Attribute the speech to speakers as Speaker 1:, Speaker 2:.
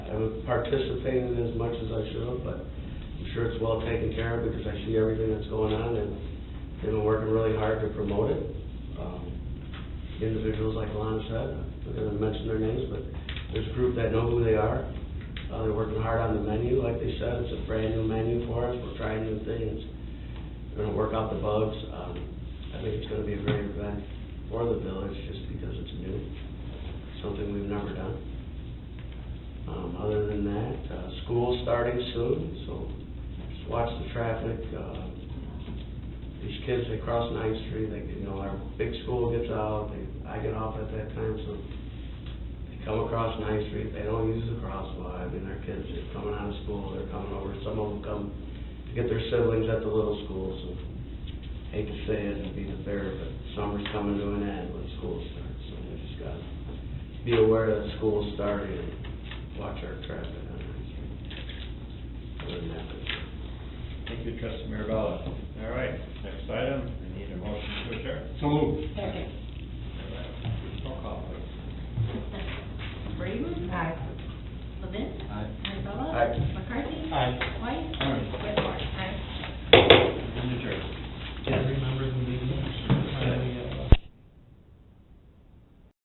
Speaker 1: participated as much as I should have, but I'm sure it's well taken care of because I see everything that's going on and they've been working really hard to promote it. Um, Individuals, like Alana said, I'm not gonna mention their names, but there's a group that know who they are. Uh, they're working hard on the menu, like they said, it's a brand new menu for us, we're trying new things. We're gonna work out the bugs. Um, I think it's gonna be a great event for the village just because it's new, something we've never done. Um, other than that, uh, school's starting soon, so just watch the traffic. Uh, These kids, they cross Ninth Street, they, you know, our big school gets out, they, I get off at that time, so they come across Ninth Street, they don't use the crosswalk. I mean, our kids are coming out of school, they're coming over, some of them come to get their siblings at the little schools, so hate to say it and be the bearer, but summer's coming to an end when school starts, so we just gotta be aware that school's starting and watch our traffic on Ninth Street. Other than that, that's it.
Speaker 2: Thank you, trustee Mirabella. All right, next item, I need a motion to adjourn.
Speaker 3: So moved.
Speaker 4: Second.
Speaker 2: Roll call, please.
Speaker 4: Brayden? Aye. Levin?
Speaker 3: Aye.
Speaker 4: Mirabella?
Speaker 1: Aye.
Speaker 4: McCarthy?
Speaker 3: Aye.
Speaker 4: White?
Speaker 3: Aye.
Speaker 4: Whitmore?